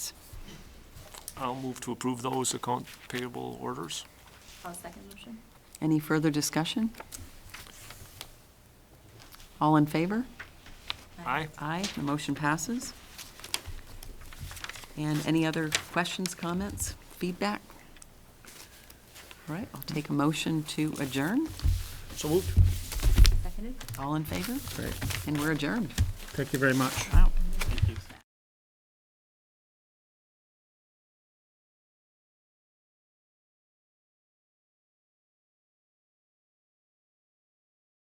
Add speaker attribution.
Speaker 1: I'll move to approve those account payable orders.
Speaker 2: I'll second motion.
Speaker 3: Any further discussion? All in favor?
Speaker 1: Aye?
Speaker 3: Aye, the motion passes. And any other questions, comments, feedback? All right, I'll take a motion to adjourn.
Speaker 4: So moved.
Speaker 2: Seconded?
Speaker 3: All in favor?
Speaker 4: Great.
Speaker 3: And we're adjourned.
Speaker 4: Thank you very much.
Speaker 3: Wow.